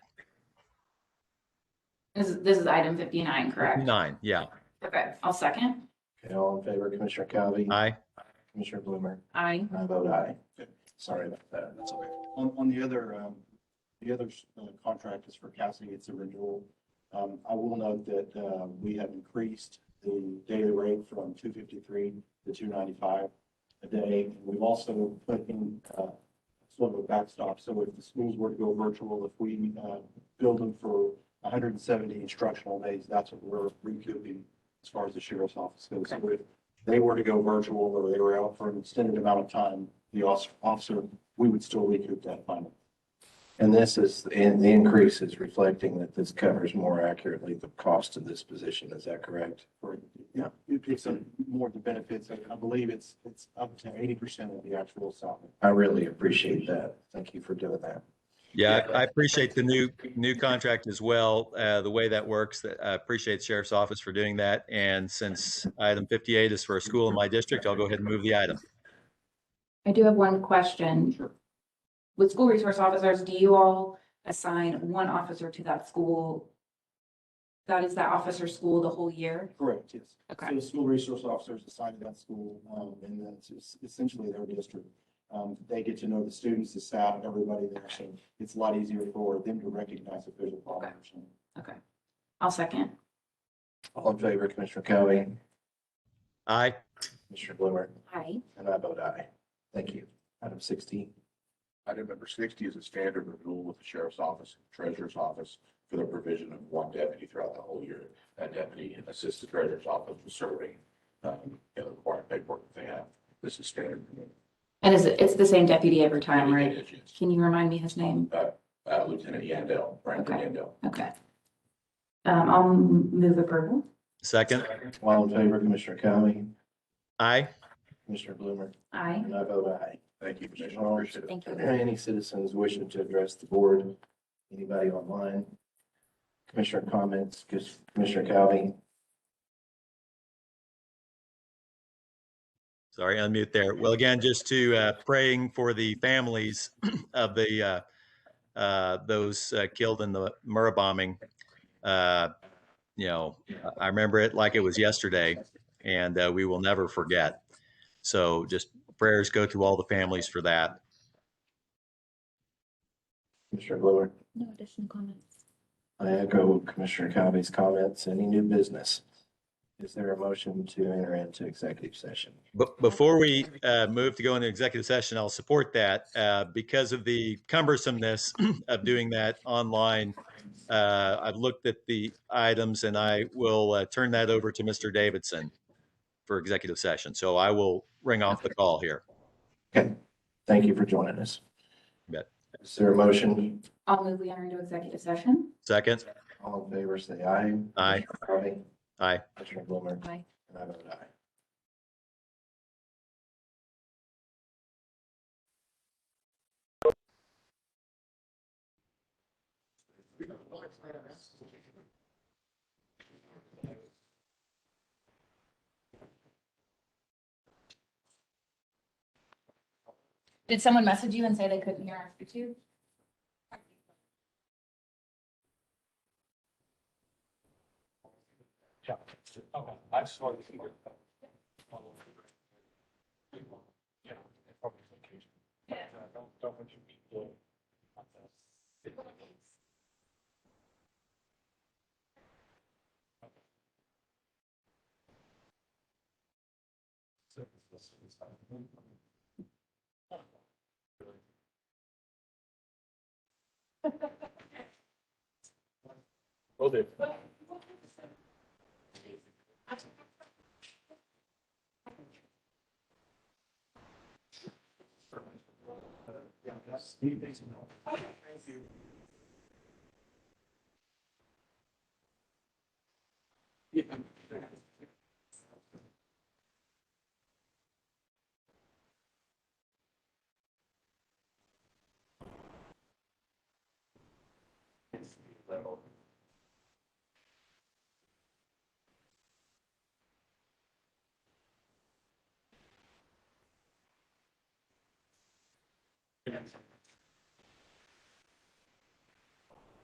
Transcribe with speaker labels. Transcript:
Speaker 1: This is, this is item fifty-nine, correct?
Speaker 2: Nine, yeah.
Speaker 1: Okay, I'll second.
Speaker 3: Okay, all in favor, Commissioner Cowan,
Speaker 2: Aye.
Speaker 3: Commissioner Blumer,
Speaker 1: I,
Speaker 3: I vote aye. Sorry about that.
Speaker 4: That's okay. On, on the other, um, the other uh, contract is for Cassidy, it's a renewal. Um, I will note that, uh, we have increased the daily rate from two fifty-three to two ninety-five a day. We've also put in, uh, sort of a backstop, so if the schools were to go virtual, if we, uh, build them for hundred and seventy instructional days, that's what we're recouping as far as the sheriff's office goes. So if they were to go virtual or they were out for an extended amount of time, the os- officer we would still recoup that final.
Speaker 3: And this is, and the increase is reflecting that this covers more accurately the cost of this position. Is that correct?
Speaker 4: for- Yeah, it picks up more of the benefits. I I believe it's, it's up to eighty percent of the actual salary.
Speaker 3: I really appreciate that. Thank you for doing that.
Speaker 2: Yeah,
Speaker 3: Yeah.
Speaker 2: I I appreciate the new, new contract as well, uh, the way that works. that- I appreciate Sheriff's Office for doing that. And since item 58 is for a school in my district, I'll go ahead and move the item.
Speaker 1: I do have one question.
Speaker 4: Sure.
Speaker 1: With school resource officers, do you all assign one officer to that school? That is that officer's school the whole year?
Speaker 4: Correct, yes.
Speaker 1: Okay,
Speaker 4: So the school resource officers assigned to that school, um, and that's es- essentially their district. Um, they get to know the students, the staff, everybody there, so it's a lot easier for them to recognize if there's a problem or something.
Speaker 1: I'll second.
Speaker 3: All in favor, Commissioner Cowan,
Speaker 2: Aye.
Speaker 3: Commissioner Blumer,
Speaker 1: I,
Speaker 3: and I vote aye. Thank you. Item sixteen.
Speaker 5: Item number sixty is a standard renewal with the sheriff's office, and treasurer's office for the provision of one deputy throughout the whole year. That deputy assists the treasurer's office with serving, um, you know, the required paperwork that they have. This is standard. renewal.
Speaker 1: and is it, it's the same deputy every time, right?
Speaker 5: It is,
Speaker 1: Can you remind me his name?
Speaker 5: uh, Lieutenant Yandell, Brandon
Speaker 1: Okay.
Speaker 5: Yandell.
Speaker 1: Okay. Um, I'll move approval.
Speaker 2: Second.
Speaker 3: All in favor, Commissioner Cowan,
Speaker 2: Aye.
Speaker 3: Commissioner Blumer,
Speaker 1: I,
Speaker 3: and I vote aye.
Speaker 5: Thank you, Commissioner. Appreciate it.
Speaker 1: thank
Speaker 3: Are
Speaker 1: you.
Speaker 3: there Any citizens wishing to address the board? Anybody online? Commissioner comments, Commissioner Cowan?
Speaker 2: Sorry, unmute there. Well, again, just to uh, praying for the families of the uh, uh, those uh, killed in the Murrah bombing. Uh, you know, I remember it like it was yesterday, and uh, we will never forget. So, just prayers go to all the families for that.
Speaker 3: Commissioner Blumer?
Speaker 1: No additional comments.
Speaker 3: I echo Commissioner Covey's comments. Any new business? Is there a motion to enter into executive session?
Speaker 2: But before we uh, move to go into executive session, I'll support that uh, because of the cumbersomeness of doing that online. uh, I've looked at the items and I will uh, turn that over to Mr. Davidson for executive session. So I will ring off the call here.
Speaker 3: Thank you for joining us.
Speaker 2: You bet.
Speaker 3: Is there a motion?
Speaker 1: I'll move we enter into executive session.
Speaker 2: Second,
Speaker 3: All in favor, say aye.
Speaker 2: Aye.
Speaker 3: Commissioner Covey?
Speaker 2: aye.
Speaker 3: Commissioner Blumer?
Speaker 1: Aye.
Speaker 3: And I vote aye.
Speaker 1: Did someone message you and say they couldn't hear after two?